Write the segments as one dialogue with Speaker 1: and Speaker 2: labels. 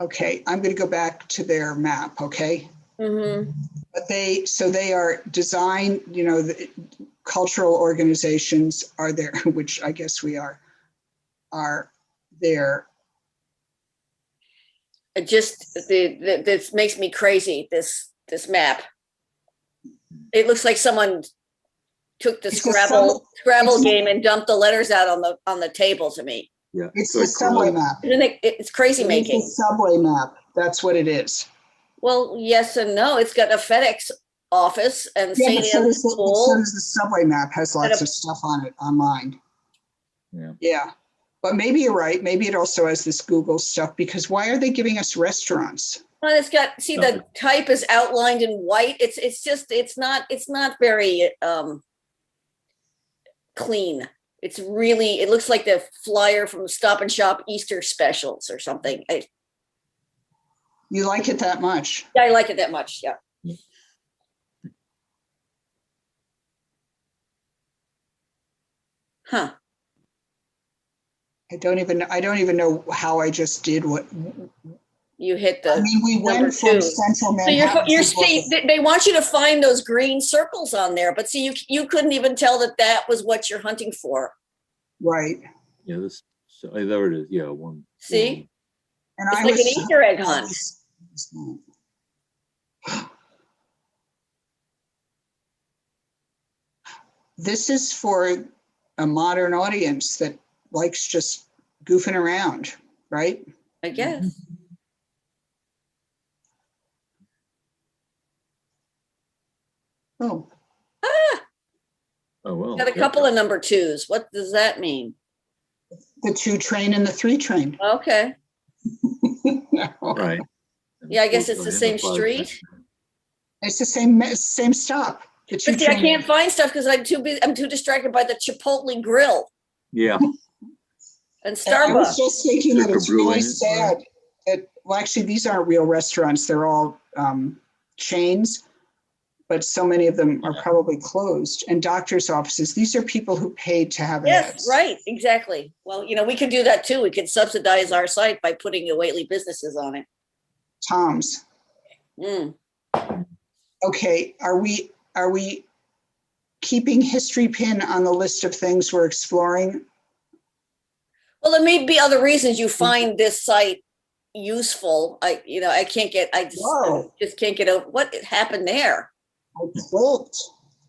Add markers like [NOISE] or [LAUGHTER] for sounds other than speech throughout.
Speaker 1: Okay, I'm going to go back to their map, okay?
Speaker 2: Mm-hmm.
Speaker 1: But they, so they are design, you know, the cultural organizations are there, [LAUGHS] which I guess we are, are there.
Speaker 2: It just, the, the, this makes me crazy, this, this map. It looks like someone took the
Speaker 1: It's just some-
Speaker 2: Scrabble, Scrabble
Speaker 1: it's-
Speaker 2: game and dumped the letters out on the, on the table to me.
Speaker 3: Yeah.
Speaker 1: It's
Speaker 3: like
Speaker 1: the subway
Speaker 3: Corona.
Speaker 1: map.
Speaker 2: Isn't it, it's
Speaker 1: It's
Speaker 2: crazy
Speaker 1: the
Speaker 2: making.
Speaker 1: Subway map, that's what it is.
Speaker 2: Well, yes and no. It's got a FedEx office and
Speaker 1: Yeah, but
Speaker 2: St.
Speaker 1: so does
Speaker 2: Anne's
Speaker 1: the- but so
Speaker 2: School.
Speaker 1: does the subway map, has lots of stuff on it online.
Speaker 3: Yeah.
Speaker 1: Yeah, but maybe you're right, maybe it also has this Google stuff, because why are they giving us restaurants?
Speaker 2: Well, it's got, see, the type is outlined in white. It's, it's just, it's not, it's not very, um, clean. It's really, it looks like the flyer from Stop and Shop Easter specials or something. I,
Speaker 1: You like it that much?
Speaker 2: I like it that much. Yeah. Huh.
Speaker 1: I don't even, I don't even know how I just did what,
Speaker 2: You hit
Speaker 1: I
Speaker 2: the.
Speaker 1: mean, we
Speaker 2: number
Speaker 1: went from
Speaker 2: two.
Speaker 1: central
Speaker 2: So you're,
Speaker 1: Manhattan.
Speaker 2: you're
Speaker 1: to
Speaker 2: see, they, they want you to find those green circles on there, but see, you, you couldn't even tell that that was what you're hunting for.
Speaker 1: Right,
Speaker 3: Yeah, this, so, oh, there it is, yeah, one.
Speaker 2: See?
Speaker 1: and
Speaker 2: It's
Speaker 1: I
Speaker 2: like an
Speaker 1: was.
Speaker 2: Easter egg hunt.
Speaker 1: [GASPS] This is for a modern audience that likes just goofing around, right?
Speaker 2: I
Speaker 1: Mm-hmm.
Speaker 2: guess.
Speaker 1: Oh,
Speaker 3: one. Oh, well.
Speaker 2: Got a couple of number twos. What does that mean?
Speaker 1: the two train and the three train. [LAUGHS]
Speaker 2: Okay.
Speaker 3: Right. oh,
Speaker 2: Yeah, I guess it's the same
Speaker 3: Identified
Speaker 2: street.
Speaker 1: It's the same, me- same stop. The two
Speaker 2: But see, I
Speaker 1: train-
Speaker 2: can't find stuff because I'm too busy, I'm too distracted by the Chipotle grill
Speaker 3: Yeah,
Speaker 2: and
Speaker 1: I was
Speaker 2: Starbucks.
Speaker 1: just thinking that
Speaker 3: Liquor
Speaker 1: it's really
Speaker 3: brewing,
Speaker 1: sad that, well, actually, these aren't real restaurants. They're all um, chains. But so many of them are probably closed and doctors' offices. These are people who paid to have
Speaker 2: Yes,
Speaker 1: ads.
Speaker 2: right, exactly. Well, you know, we could do that too. We could subsidize our site by putting the Whately businesses on it.
Speaker 1: Tom's.
Speaker 2: Mm.
Speaker 1: Okay, are we, are we keeping history pin on the list of things we're exploring?
Speaker 2: Well, there may be other reasons you
Speaker 1: Mm-hmm.
Speaker 2: find this site useful. I, you know, I can't get, I just,
Speaker 1: Whoa.
Speaker 2: just can't get over, what happened there?
Speaker 1: I clicked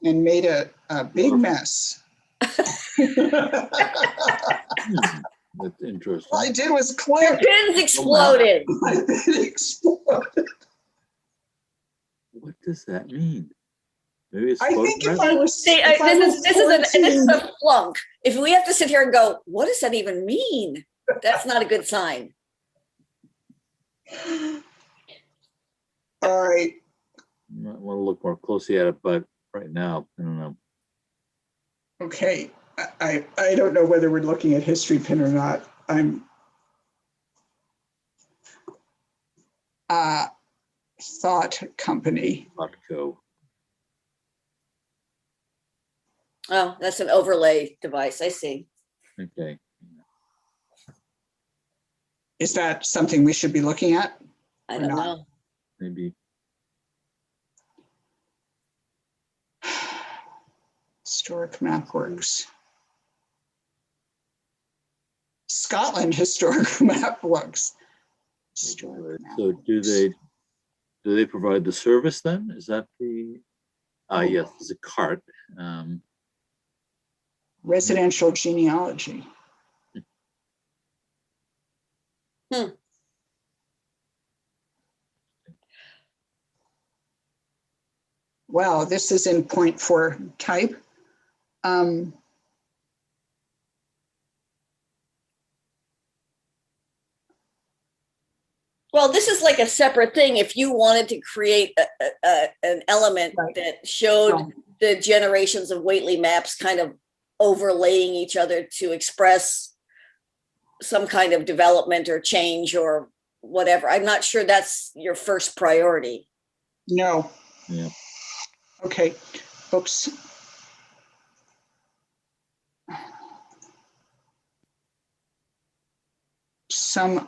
Speaker 1: and made a, a big mess. [LAUGHS]
Speaker 3: Hmm, [CLEARS THROAT] that's
Speaker 1: All I
Speaker 3: interesting.
Speaker 1: did was
Speaker 2: Your
Speaker 1: click. [LAUGHS]
Speaker 2: pins exploded.
Speaker 1: It exploded.
Speaker 3: What does that mean? Maybe it's.
Speaker 1: I think if I
Speaker 3: photograph?
Speaker 1: was.
Speaker 2: See,
Speaker 1: if
Speaker 2: I,
Speaker 1: I
Speaker 2: uh, this
Speaker 1: was
Speaker 2: is, this is, a, this is
Speaker 1: 14,
Speaker 2: a flunk. If we have to sit here and go, what does that even mean? That's not a good sign.
Speaker 1: All right,
Speaker 3: Might want to look more closely at it, but right now, I don't know.
Speaker 1: okay. I- I, I don't know whether we're looking at history pin or not. I'm. Uh, Thought Company.
Speaker 3: Botco.
Speaker 2: Oh, that's an overlay device. I see.
Speaker 3: Okay.
Speaker 1: Is that something we should be looking at?
Speaker 2: I
Speaker 1: Or
Speaker 2: don't
Speaker 1: not.
Speaker 2: know.
Speaker 3: Maybe.
Speaker 1: Historic Map Works. Scotland Historic [LAUGHS] Map Works. Historic Map
Speaker 3: So do
Speaker 1: Works.
Speaker 3: they, do they provide the service then? Is that the? Ah, yes, it's a cart. Um,
Speaker 1: Residential genealogy. Wow, this is in point four type. Um,
Speaker 2: Well, this is like a separate thing. If you wanted to create a, a, a- an element
Speaker 1: Right.
Speaker 2: that showed the generations of Whately maps kind of overlaying each other to express some kind of development or change or whatever, I'm not sure that's your first priority.
Speaker 1: no.
Speaker 3: Yeah.
Speaker 1: Okay, oops. Some